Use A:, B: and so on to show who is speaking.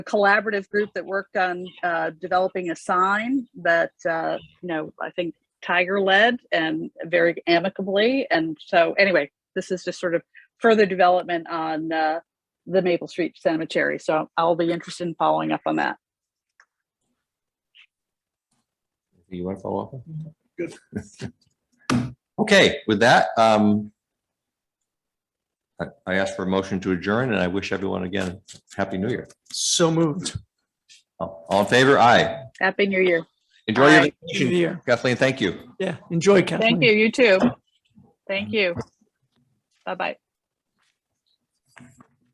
A: collaborative group that worked on uh, developing a sign that, uh, you know, I think Tiger led and very amicably. And so, anyway, this is just sort of further development on uh, the Maple Street Cemetery. So I'll be interested in following up on that.
B: You want to follow up? on
C: Good.
B: Okay, with that, um, I, I ask for a motion to adjourn and I wish everyone again, Happy New Year.
C: So moved.
B: All all in favor? Aye.
A: Happy New Year.
B: Enjoy your
A: Aye.
B: vacation.
C: Yeah,
B: Kathleen, thank you.
C: yeah. Enjoy, Kathleen.
A: Thank you. You too. Thank you. Bye bye.